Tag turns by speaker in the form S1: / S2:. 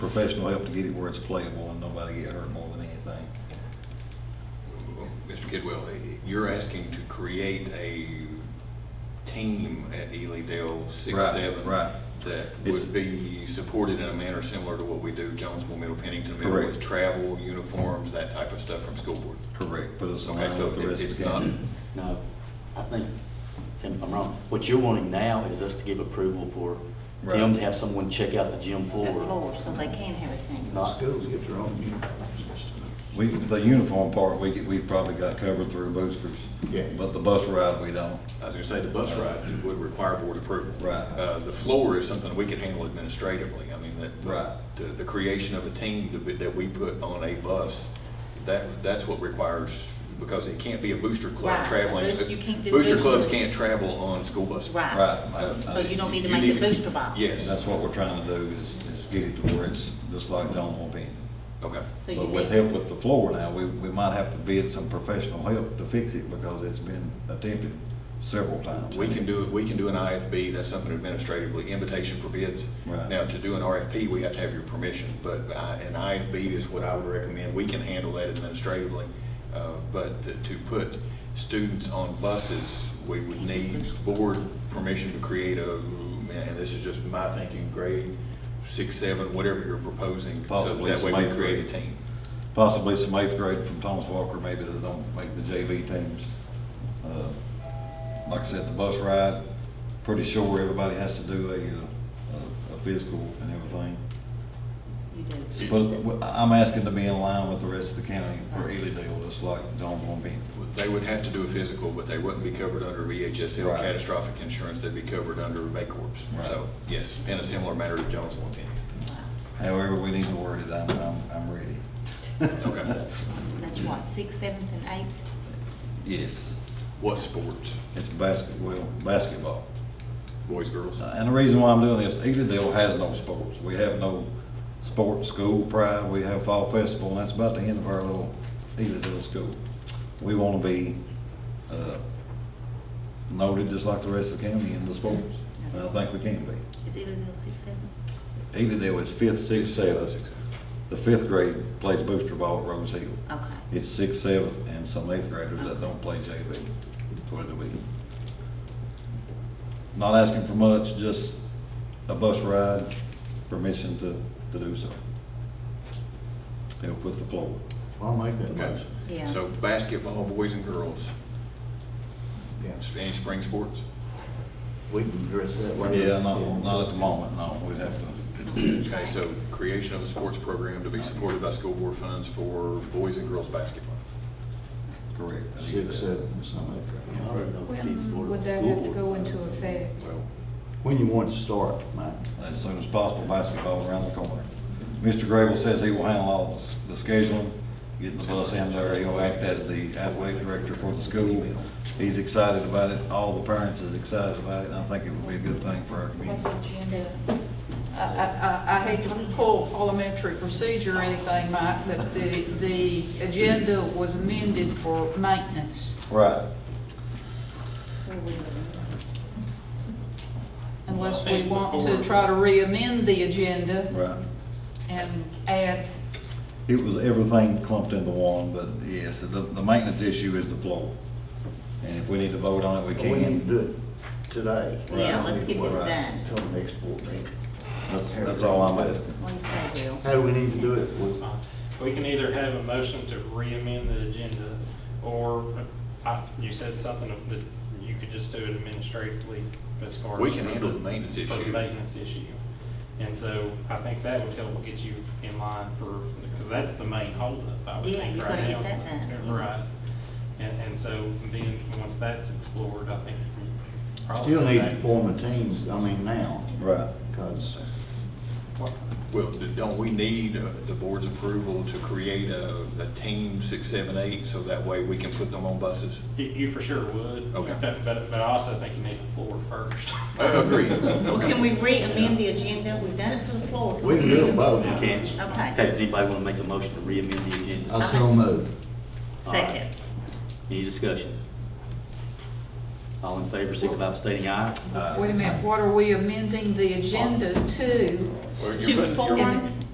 S1: professional help to get it where it's playable and nobody get hurt more than anything.
S2: Mr. Kidwell, eh, you're asking to create a team at Ely Dale six,
S1: Right,
S2: seven.
S1: right.
S2: That
S1: It's-
S2: would be supported in a manner similar to what we do Jonesville, Middle Pennington, Middle
S1: Correct.
S2: with travel, uniforms, that type of stuff from school board.
S1: Correct, but it's
S2: Okay,
S1: aligned
S2: so
S1: with the
S2: it-
S1: rest
S2: it's
S1: of the
S2: not,
S1: county.
S3: No, I think, Tim, if I'm wrong, what you're wanting now is us to give approval for them
S1: Right.
S3: to have someone check out the gym
S4: the
S3: floor.
S4: floor, so they can have a singing.
S3: Not-
S5: Schools get their own uniforms uh, and stuff.
S1: We, the uniform part, we, get- we've probably got covered through boosters.
S5: Yeah.
S1: But the bus ride, we don't.
S2: I was gonna say, the bus ride would require board approval.
S1: Right.
S2: Uh, the floor is something we can handle administratively, I mean, that.
S1: Right.
S2: The, the creation of a team to be- that we put on a bus, that, that's what requires, because it can't be a booster
S4: Right,
S2: club
S4: a
S2: traveling.
S4: boost- you can't do
S2: Booster
S4: booster.
S2: clubs can't travel on school buses.
S4: Right,
S1: Right.
S2: Uh,
S4: so you don't need to
S2: you
S4: make
S2: need-
S4: a booster box.
S1: And
S2: Yes,
S1: that's what we're trying to do is, is get it to where it's just like Donald Pennington.
S2: okay.
S4: So you
S1: But with
S4: need-
S1: help with the floor now, we, we might have to bid some professional help to fix it because it's been attempted several times.
S2: We can do, we can do an IFB, that's something administratively, invitation for bids.
S1: Right.
S2: Now, to do an RFP, we have to have your permission, but I- an IFB is what I would recommend, we can handle that administratively. Uh, But th- to put students on buses, we would need board permission to create a, and this is just my thinking, grade six, seven, whatever you're proposing.
S1: Possibly
S2: So that
S1: some
S2: way we
S1: eighth
S2: create a
S1: grade.
S2: team.
S1: Possibly some eighth grade from Thomas Walker, maybe that don't make the JV teams. Uh, Like I said, the bus ride, pretty sure everybody has to do a, uh, a physical and everything.
S4: You do.
S1: But I- I'm asking to be in line with the rest of the county for Ely Dale, just like John Von Bean.
S2: They would have to do a physical, but they wouldn't be covered under VHSL
S1: Right.
S2: catastrophic insurance, they'd be covered under Corps.
S1: Right.
S2: So, yes, in a similar manner to Jonesville and Pennington.
S4: Wow.
S1: However, we need to word it, I'm, I'm, I'm ready.
S2: Okay.
S4: That's what, sixth, seventh, and eighth?
S1: Yes.
S2: What sports?
S1: It's basketball, basketball.
S2: Boys, girls?
S1: Uh, And the reason why I'm doing this, Edendale has no sports. We have no sports school pride. We have fall festival, and that's about the end of our little Edendale school. We want to be uh, noted just like the rest of the county in the sports. And I think we can be.
S4: Is either of those six, seven?
S1: Edendale is fifth, sixth, seventh. The fifth grade plays booster ball at Rose Hill.
S4: Okay.
S1: It's sixth, seventh, and some eighth graders that don't play JV. That's what it'll be. Not asking for much, just a bus ride, permission to, to do so. Help with the floor.
S5: I'll make that
S2: Okay.
S5: motion.
S4: Yeah.
S2: So basketball, boys and girls,
S5: Yeah,
S2: any spring sports?
S5: we can address that later.
S1: Yeah, not, not at the moment, no, we'd have to,
S2: Okay, so creation of a sports program to be supported by school board funds for boys and girls basketball.
S1: correct.
S5: Six, seven, and some eighth
S3: I
S1: Uh-huh.
S5: grade.
S3: don't know if these board-
S6: When Would that
S3: school
S6: have to
S3: board
S6: go
S3: funds-
S6: into effect?
S2: Well,
S5: When you want to start, Mike?
S1: As soon as possible, basketball's around the corner. Mr. Grable says he will handle all the scheduling, getting the bus in there. He'll act as the athletic director for the school. He's excited about it. All the parents is excited about it, and I think it would be a good thing for our community.
S7: I, I, I hate to pull parliamentary procedure or anything, Mike, but the, the agenda was amended for maintenance,
S1: Right.
S7: unless we want to try to re-amend the agenda
S1: Right.
S7: and add,
S1: It was everything clumped into one, but yes, the, the maintenance issue is the floor. And if we need to vote on it, we
S5: We need
S1: can.
S5: to do it today.
S4: Yeah, let's get this done.
S5: Till the next board meeting.
S1: That's, that's all I'm asking.
S4: What do you say, Bill?
S5: How do we need to do it?
S8: That's fine. We can either have a motion to re-amend the agenda, or I- you said something of- that you could just do it administratively as far as.
S2: We can handle the maintenance
S8: for the
S2: issue.
S8: maintenance issue. And so I think that would help get you in line for, because that's the main holdup, I would
S4: Yeah,
S8: think,
S4: you
S8: right
S4: gotta
S8: now.
S4: get that
S8: is the-
S4: done.
S8: Right. And, and so then, once that's explored, I think. you probably
S5: Still need to
S8: have-
S5: form a team, I mean, now,
S1: Right.
S5: because
S2: Well, d- don't we need uh, the board's approval to create a, a team six, seven, eight, so that way we can put them on buses?
S8: You, you for sure would.
S2: Okay.
S8: But, but but I also think you need the floor first.
S2: Uh, Agreed.
S4: Can
S2: Okay.
S4: we re-amend the agenda? We've done it for the floor.
S5: we can do it both.
S3: You can.
S4: Okay.
S3: Okay, does anybody want to make a motion to re-amend the agenda?
S5: I still move.
S4: Second.
S3: Any discussion? All in favor, signify by stating aye.
S7: wait a minute, what are we amending the agenda to?
S2: Well, you're
S4: To
S2: putting- you're-
S4: form